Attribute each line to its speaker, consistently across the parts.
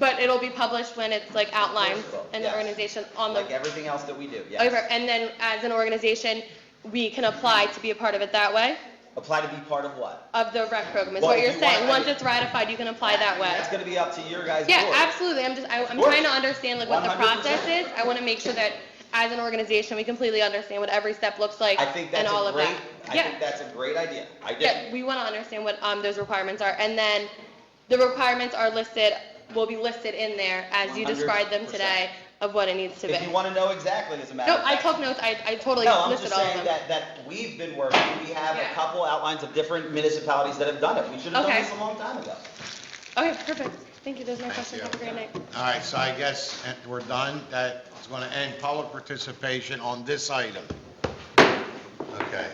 Speaker 1: But it'll be published when it's like outlined in the
Speaker 2: Yes.
Speaker 1: organization on the
Speaker 2: Like everything else that we do,
Speaker 1: over.
Speaker 2: yes.
Speaker 1: And then as an organization, we can apply to be a part of it that way,
Speaker 2: Apply to be part of what?
Speaker 1: of the rec program, is
Speaker 2: Well,
Speaker 1: what
Speaker 2: if
Speaker 1: you're
Speaker 2: you want-
Speaker 1: saying. Once it's ratified, you can apply that way.
Speaker 2: That's gonna be up to your guys' board.
Speaker 1: Yeah, absolutely. I'm just, I, I'm
Speaker 2: course.
Speaker 1: trying to understand like what the
Speaker 2: 100%.
Speaker 1: process is. I want to make sure that as an organization, we completely understand what every step looks like
Speaker 2: I think
Speaker 1: and
Speaker 2: that's
Speaker 1: all
Speaker 2: a
Speaker 1: of
Speaker 2: great,
Speaker 1: that.
Speaker 2: I
Speaker 1: Yeah,
Speaker 2: think that's a great idea. I do.
Speaker 1: yeah, we want to understand what, um, those requirements are. And then the requirements are listed, will be listed in there as you described them
Speaker 2: 100%.
Speaker 1: today of what it needs to be.
Speaker 2: If you wanna know exactly, as a matter
Speaker 1: No,
Speaker 2: of
Speaker 1: I
Speaker 2: fact.
Speaker 1: took notes. I, I totally
Speaker 2: No, I'm
Speaker 1: listed
Speaker 2: just
Speaker 1: all of
Speaker 2: saying
Speaker 1: them.
Speaker 2: that, that we've been working, we have a
Speaker 1: Yeah.
Speaker 2: couple outlines of different municipalities that have done it. We should have
Speaker 1: Okay.
Speaker 2: done this a long time ago.
Speaker 1: Okay, perfect. Thank you. There's no
Speaker 3: Thank
Speaker 1: questions.
Speaker 3: you.
Speaker 1: Have a great night.
Speaker 3: All right, so I guess eh, we're done. That's going to end public participation on this item. Okay.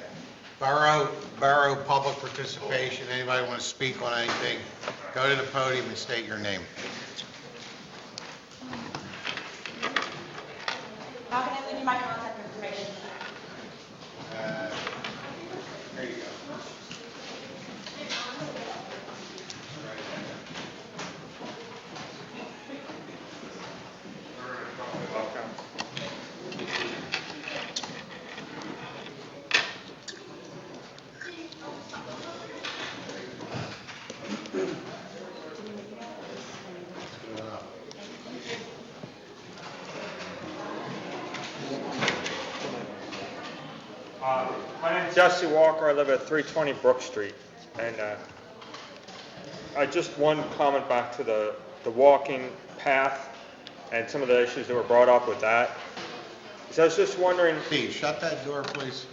Speaker 3: Borough, borough public participation, anybody want to speak on anything? Go to the podium and state your name.
Speaker 4: How can I leave you my contact information?
Speaker 3: There you go.
Speaker 5: Uh, My name's Jesse Walker, I live at 320 Brook Street, and uh, I just one comment back to the, the walking path and some of the issues that were brought up with that. So I was just wondering,
Speaker 3: Steve, shut that door, please.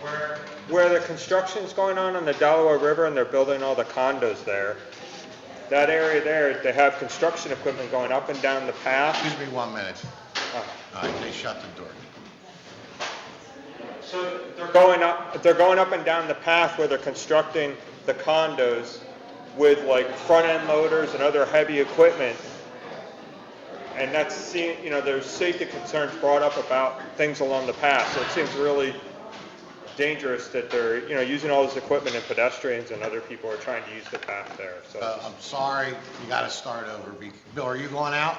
Speaker 5: where, where the construction's going on on the Delaware River and they're building all the condos there, that area there, they have construction equipment going up and down the path.
Speaker 3: Excuse me one minute.
Speaker 5: Uh,
Speaker 3: All right, they shut the door.
Speaker 5: So they're going up, they're going up and down the path where they're constructing the condos with like front-end loaders and other heavy equipment. And that's, se- you know, there's safety concerns brought up about things along the path, so it seems really dangerous that they're, you know, using all this equipment and pedestrians and other people are trying to use the path there, so.
Speaker 3: Uh, I'm sorry, you got to start over. Be- Bill, are you going out?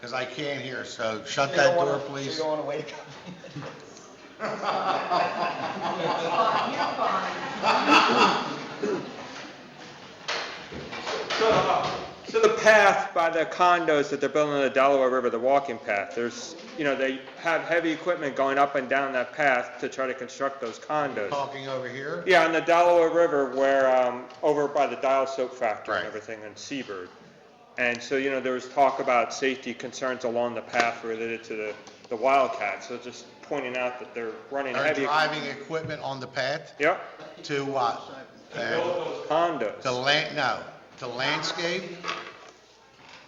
Speaker 3: Because I can't hear, so shut that door, please.
Speaker 2: So you don't wanna wait a couple Uh,
Speaker 5: So the path by the condos that they're building on the Delaware River, the walking path, there's, you know, they have heavy equipment going up and down that path to try to construct those condos.
Speaker 3: Talking over here?
Speaker 5: Yeah, on the Delaware River where, um, over by the Dial Soap Factory
Speaker 3: Right.
Speaker 5: and everything in Seabird. And so, you know, there was talk about safety concerns along the path related to the, the Wildcat. So just pointing out that they're running
Speaker 3: Are
Speaker 5: heavy.
Speaker 3: driving equipment on the path
Speaker 5: Yep,
Speaker 3: to what? Uh, To
Speaker 5: condos.
Speaker 3: land, no, to landscape?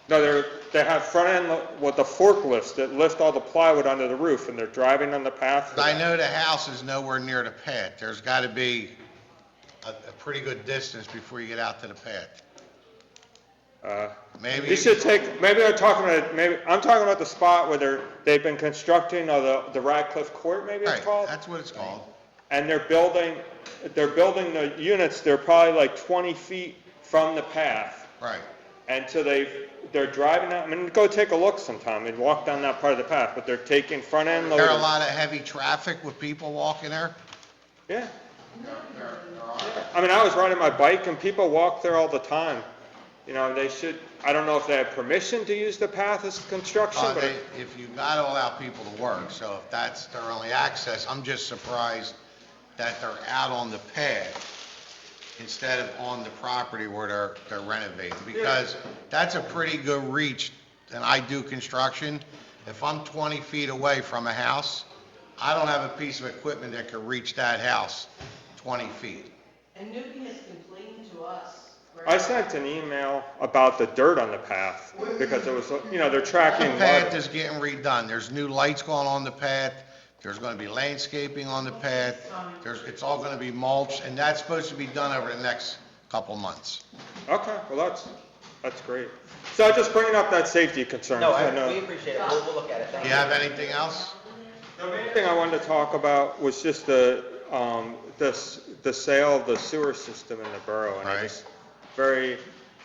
Speaker 5: No, they're, they have front end, lo- what, the forklifts that lift all the plywood onto the roof and they're driving on the path. for
Speaker 3: I
Speaker 5: that.
Speaker 3: know the house is nowhere near the path. There's got to be a, a pretty good distance before you get out to the path.
Speaker 5: Uh,
Speaker 3: Maybe.
Speaker 5: You should take, maybe they're talking about, maybe, I'm talking about the spot where they're, they've been constructing, or the, the Radcliffe Court, maybe it's
Speaker 3: Right,
Speaker 5: called?
Speaker 3: that's what it's called.
Speaker 5: And they're building, they're building the units, they're probably like 20 feet from the path.
Speaker 3: Right.
Speaker 5: And so they've, they're driving out, I mean, go take a look sometime and walk down that part of the path, but they're taking front end
Speaker 3: There are a
Speaker 5: loaders.
Speaker 3: lot of heavy traffic with people walking there?
Speaker 5: Yeah. I mean, I was riding my bike and people walk there all the time. You know, they should, I don't know if they have permission to use the path as construction,
Speaker 3: Uh,
Speaker 5: but.
Speaker 3: they- If you got to allow people to work, so if that's their only access, I'm just surprised that they're out on the pad instead of on the property where they're they're renovating, because that's a pretty good reach, and I do construction. If I'm 20 feet away from a house, I don't have a piece of equipment that could reach that house 20 feet.
Speaker 4: And Newbie has complained to us. where-
Speaker 5: I sent an email about the dirt on the path because it was, you know, they're tracking
Speaker 3: The path
Speaker 5: water.
Speaker 3: is getting redone, there's new lights going on the path, there's gonna be landscaping on the path, there's, it's all gonna be mulch, and that's supposed to be done over the next couple months.
Speaker 5: Okay, well, that's, that's great. So I'm just bringing up that safety concern.
Speaker 2: No,
Speaker 5: I
Speaker 2: I,
Speaker 5: know.
Speaker 2: we appreciate it, we'll, we'll look at it, thank
Speaker 3: Do
Speaker 2: you.
Speaker 3: you have anything else?
Speaker 5: The main thing I wanted to talk about was just the, um, the, s- the sale of the sewer system in the borough. And I
Speaker 3: Right.
Speaker 5: just very